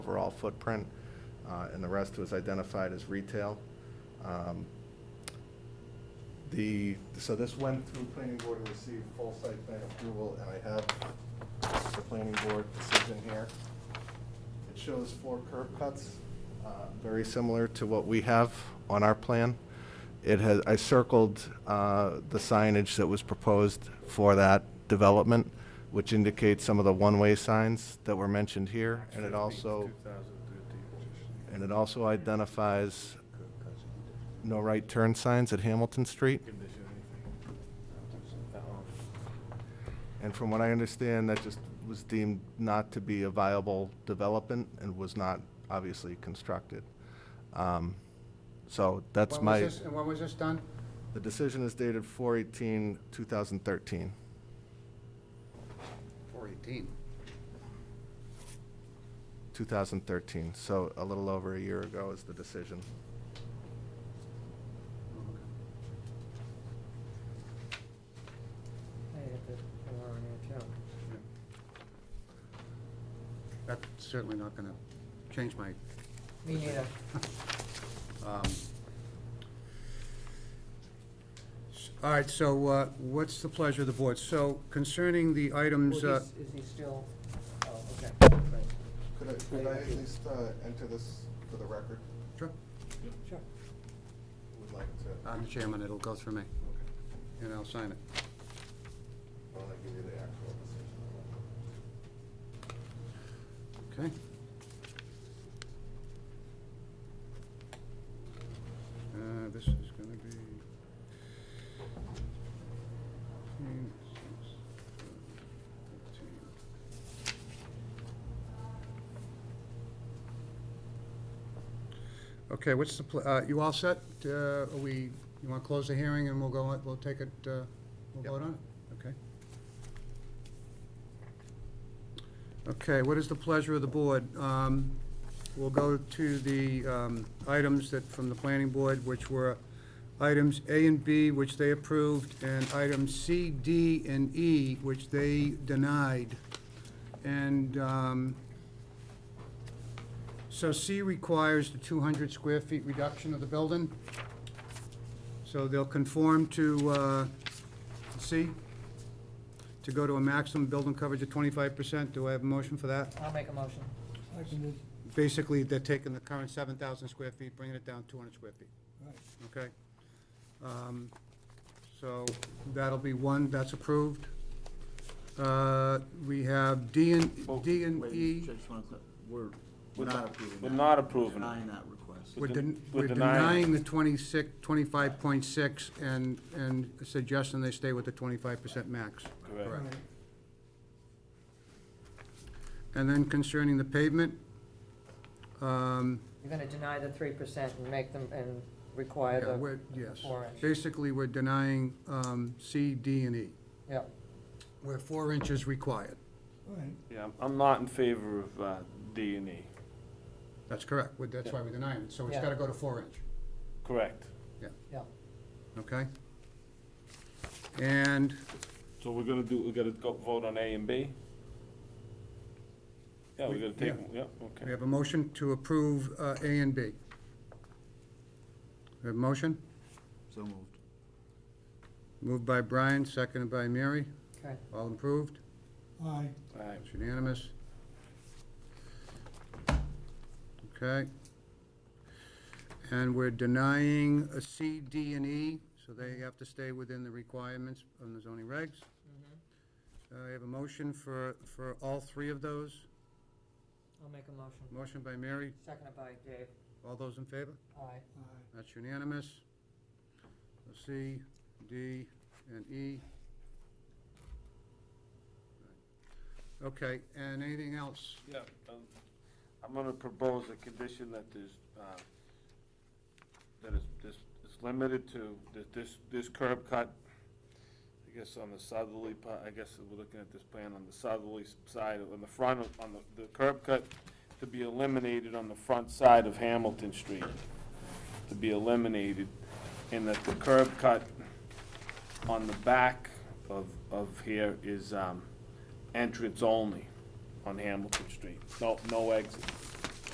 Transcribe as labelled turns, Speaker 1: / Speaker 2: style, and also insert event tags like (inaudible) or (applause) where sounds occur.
Speaker 1: overall footprint, uh, and the rest was identified as retail. Um, The, so this went through planning board to receive full site plan approval, and I have the planning board decision here. It shows four curb cuts, uh, very similar to what we have on our plan. It has, I circled uh, the signage that was proposed for that development, which indicates some of the one-way signs that were mentioned here, and it also, and it also identifies no right turn signs at Hamilton Street. And from what I understand, that just was deemed not to be a viable development and was not obviously constructed. Um, So that's
Speaker 2: When
Speaker 1: my,
Speaker 2: was this- And when was this done?
Speaker 1: the decision is dated 4/18/2013.
Speaker 2: Four eighteen.
Speaker 1: 2013, so a little over a year ago is the decision.
Speaker 3: I had the uh, alarm here too.
Speaker 2: That's certainly not gonna change my,
Speaker 3: Me neither. (laughs)
Speaker 2: um. s- All right, so, uh, what's the pleasure of the board? So concerning the items,
Speaker 3: Well,
Speaker 2: uh,
Speaker 3: he's- Is he still, oh, okay, right,
Speaker 1: Could I, uh,
Speaker 3: could I at least,
Speaker 1: enter this for the record?
Speaker 2: sure,
Speaker 3: sure.
Speaker 1: Would like to, I
Speaker 2: I'm the chairman, it'll go through me, and I'll sign it.
Speaker 1: want to give you the actual decision.
Speaker 2: Okay. Uh, this is gonna be. fifteen, six, thirteen. Okay, what's the, pl- uh, you all set? Uh, are we, you wanna close the hearing and we'll go, on- we'll take it, uh, we'll
Speaker 1: Yep.
Speaker 2: vote on it? Okay. Okay, what is the pleasure of the board? Um, We'll go to the um, items that, from the planning board, which were items A and B, which they approved, and items C, D, and E, which they denied. And um, so C requires the 200 square feet reduction of the building. So they'll conform to uh, C, to go to a maximum building coverage of 25%. Do I have a motion for that?
Speaker 3: I'll make a motion.
Speaker 2: Basically, they're taking the current 7,000 square feet, bringing it down 200 square feet. Okay? Um, So that'll be one, that's approved. Uh, We have D
Speaker 4: Well,
Speaker 2: and, D and
Speaker 4: wait,
Speaker 2: E.
Speaker 4: just wanna cl- We're,
Speaker 5: We're
Speaker 4: we're
Speaker 5: not
Speaker 4: not
Speaker 5: approving
Speaker 4: approving that.
Speaker 5: that.
Speaker 4: We're
Speaker 5: approving it.
Speaker 4: Denying that request.
Speaker 2: We're
Speaker 5: den-
Speaker 2: den-
Speaker 5: we're
Speaker 2: we're denying
Speaker 5: denying-
Speaker 2: the 26, 25.6 and, and suggesting they stay with the 25% max.
Speaker 5: Correct.
Speaker 2: And then concerning the pavement, um,
Speaker 3: You're gonna deny the three percent and make them, and require
Speaker 2: yeah,
Speaker 3: the
Speaker 2: we're, yes.
Speaker 3: four inch.
Speaker 2: Basically, we're denying um, C, D, and E,
Speaker 3: Yep,
Speaker 2: where four inches required.
Speaker 5: Yeah, I'm- I'm not in favor of uh, D and E.
Speaker 2: That's correct, Well, that's why we're denying it, so it's
Speaker 3: Yeah.
Speaker 2: gotta go to four inch,
Speaker 5: Correct.
Speaker 3: yep.
Speaker 2: okay? And,
Speaker 5: So we're gonna do, we're gonna go vote on A and B? Yeah, we're gonna take, yeah,
Speaker 2: we
Speaker 5: okay.
Speaker 2: have a motion to approve uh, A and B. We have a motion,
Speaker 4: So moved.
Speaker 2: moved by Brian, seconded by Mary,
Speaker 3: Okay,
Speaker 2: all approved,
Speaker 6: Aye.
Speaker 5: All right.
Speaker 2: it's unanimous. Okay. And we're denying a C, D, and E, so they have to stay within the requirements on the zoning regs.
Speaker 3: Mm-hmm.
Speaker 2: Uh, I have a motion for, for all three of those.
Speaker 3: I'll make a motion.
Speaker 2: Motion by Mary,
Speaker 3: Seconded by Dave.
Speaker 2: all those in favor?
Speaker 3: Aye.
Speaker 6: Aye.
Speaker 2: That's unanimous. C, D, and E. Okay, and anything else?
Speaker 5: Yeah, um, I'm gonna propose a condition that there's, uh, that is, this, it's limited to, that this, this curb cut, I guess on the southerly part, I guess we're looking at this plan on the southerly s- side, on the front, of- on the, the curb cut to be eliminated on the front side of Hamilton Street, to be eliminated, and that the curb cut on the back of, of here is, um, entrance only on Hamilton Street. No, no exit.